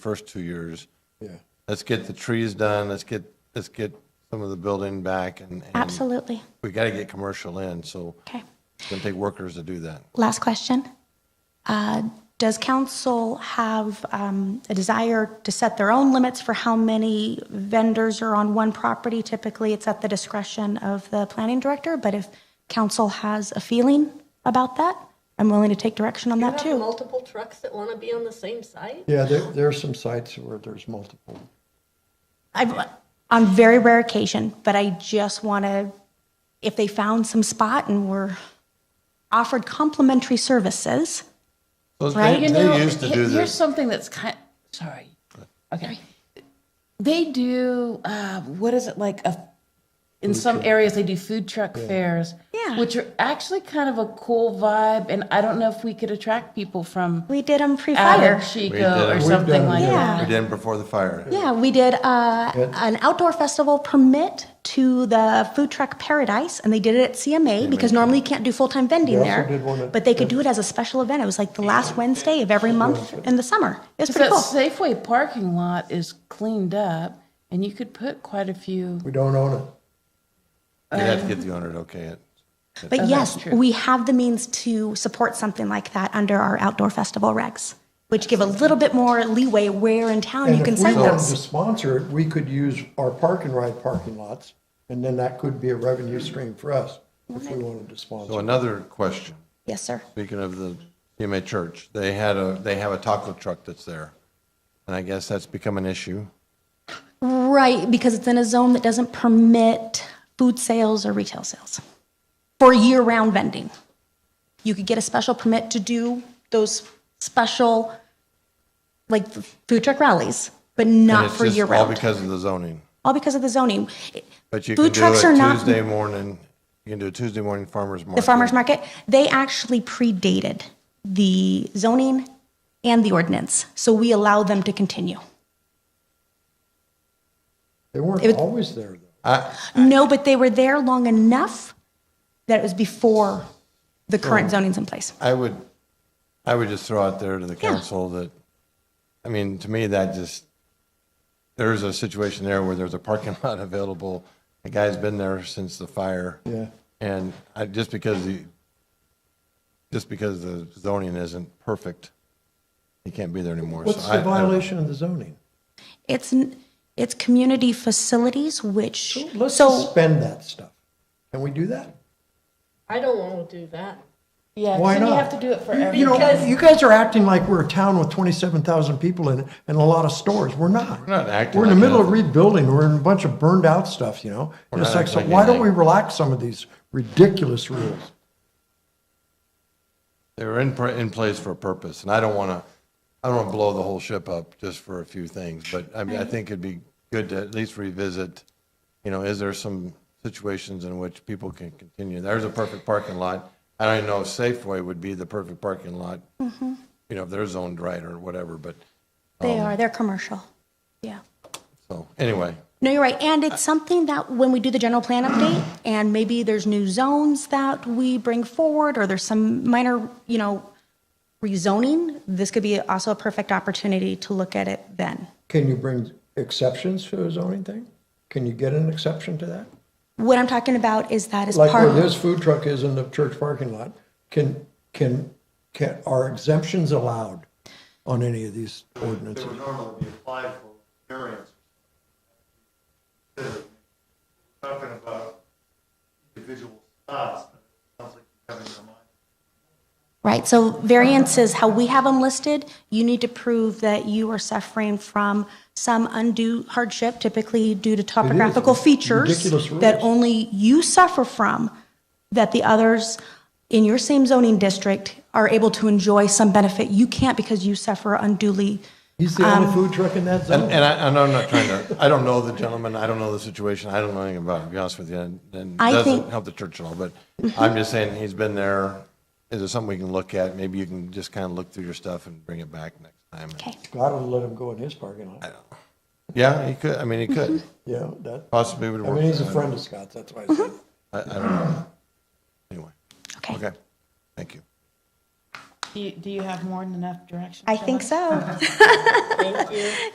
first two years. Yeah. Let's get the trees done, let's get, let's get some of the building back and. and Absolutely. We got to get commercial in, so Okay. it's going to take workers to do that. Last question. Uh, Does council have um, a desire to set their own limits for how many vendors are on one property? Typically, it's at the discretion of the planning director, but if council has a feeling about that, I'm willing to take direction on You that have too. multiple trucks that want to be on the same site? Yeah, there, there are some sites where there's multiple. I've- On very rare occasion, but I just want to, if they found some spot and were offered complimentary services, Those- Right. They You they used to he- do Here's this. something that's kind. Sorry. Okay. They do. Uh, what is it like? A, in some areas, they do food truck fairs. Yeah. Which are actually kind of a cool vibe, and I don't know if we could attract people from we did them Adam pre-fire. We did. Chico We've or done something it, like yeah. We that. did 'em before the fire. Yeah, we did uh, Good. an outdoor festival permit to the food truck Paradise, and they did it at CMA because normally you can't do full time vending They also there. did one at- but they could do it as a special event. It was like the last Wednesday of every month in the summer. It was So pretty that cool. Safeway parking lot is cleaned up, and you could put quite a few. We don't own it. You'd have to get the owner to okay it. But Oh, that's yes, true. we have the means to support something like that under our outdoor festival regs, which give a little bit more leeway where in town Oh, you can send And if we wanted to those. sponsor it, we could use our park and ride parking lots, and then that could be a revenue stream for us if we wanted to So sponsor. another question, Yes, sir. speaking of the CMA church, they had a, they have a taco truck that's there. And I guess that's become an issue. Right, because it's in a zone that doesn't permit food sales or retail sales for year-round vending. You could get a special permit to do those special, like f- food truck rallies, but And not it's for just All year-round. because of the zoning. All because of the zoning. But you can Food do trucks are a not Tuesday morning, you can do a Tuesday morning farmer's market. The farmer's market, they actually predated the zoning and the ordinance, so we allow them to continue. They weren't It would- always there, though. No, but they were there long enough that it was before the current zoning's in place. I would, I would just throw out there to the council that, I mean, to me, that just, there's a situation there where there's a parking lot available. The guy's been there since the fire. Yeah. And I, just because the, just because the zoning isn't perfect, he can't be there anymore. So What's I- I the don't- violation of the zoning? It's, n- it's community facilities, which, Let's so, suspend that stuff. Can we do that? I don't want to do that. Yeah, 'cause Why then you not? have to do it for You every. know, you guys are acting like we're a town with twenty-seven thousand people in it and a lot of stores. We're not. We're not acting We're in like the middle of nothing. rebuilding. We're in a bunch of burned out stuff, you know? And it's not like, so acting why don't we like- relax some of these ridiculous rules? They were in, pr- in place for a purpose, and I don't want to, I don't want to blow the whole ship up just for a few things, but I mean, I think it'd be good to at least revisit, you know, is there some situations in which people can continue? There's a perfect parking lot. I don't even know if Safeway would be the perfect parking lot, you know, if they're zoned right or whatever, but, they are, they're commercial. Yeah. so, anyway. No, you're right. And it's something that when we do the general plan update, and maybe there's new zones that we bring forward, or there's some minor, you know, rezoning, this could be also a perfect opportunity to look at it then. Can you bring exceptions to a zoning thing? Can you get an exception to that? What I'm talking about is that as Like part where of. this food truck is in the church parking lot, can, can, can, are exemptions allowed on any of these that ordinances? Um, would normally be applied for variance. Considering, we're Talking about individual spots, but it sounds like you have in your mind. Right, so variances, how we have them listed, you need to prove that you are suffering from some undue hardship, typically due to topographical features Ridiculous rules. that only you suffer from, that the others in your same zoning district are able to enjoy some benefit you can't because you suffer unduly. He's the only food truck in that And, um, zone. and I, and I'm not trying to, I don't know the gentleman, I don't know the situation, I don't know anything about it, to be honest with you, and and it I doesn't think- help the church at all, but I'm just saying, he's been there. Is there something we can look at? Maybe you can just kind of look through your stuff and bring it back next time. Okay, God would let him go in his parking lot. Yeah, he could, I mean, he Mm-hmm. could, Yeah, that, possibly would I work. mean, he's a I- friend of Scott's, that's why I said. I, I don't know. Anyway, okay. okay, thank you. Do you, do you have more than enough direction? I think so. Thank you.